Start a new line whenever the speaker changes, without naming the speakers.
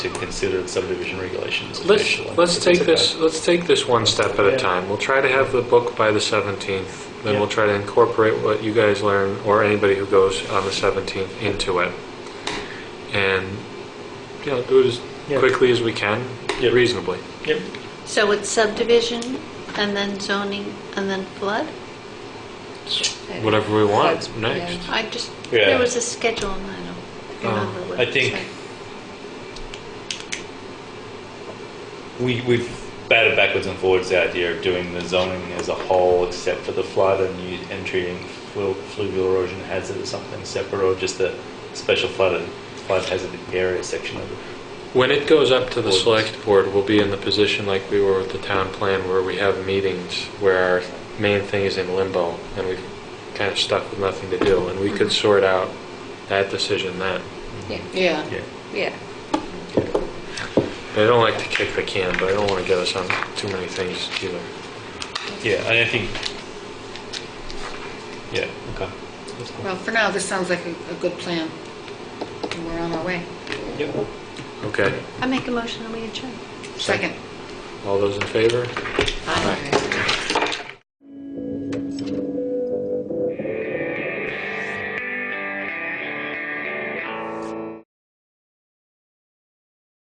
to consider the subdivision regulations
Let's,
officially.
let's
if
take
it's
this,
okay.
let's take this one step at
Yeah.
a time. We'll try to have the book by the 17th, then we'll
Yeah.
try to incorporate what you guys learn, or anybody who goes on the 17th, into it. And, you know, do it as
Yeah.
quickly as we can,
Yeah.
reasonably.
Yep.
So it's subdivision, and then zoning, and then flood?
Whatever we want
Floods,
next.
I just,
Yeah.
there was a schedule, and I don't remember
Um,
what
I
it
think-
said.
We, we've batted backwards and forwards the idea of doing the zoning as a whole except for the flood and, you, and treating flu, fluvial erosion hazard as something separate or just the special flood, flood hazard area section of it.
When it goes up to the
Ordinance.
select board, we'll be in the position like we were with the town plan, where we have meetings, where our main thing is in limbo, and we're kind of stuck with nothing to do, and we could
Mm-hmm.
sort out that decision then.
Yeah, yeah,
Yeah.
yeah.
I don't like to kick the can, but I don't want to get us on too many things either.
Yeah, and I think. Yeah, okay. That's cool.
Well, for now, this sounds like a, a good plan, and we're on our way.
Yep.
Okay,
I make a motion, and we adjourn.
Second.
all those in favor?
Aye.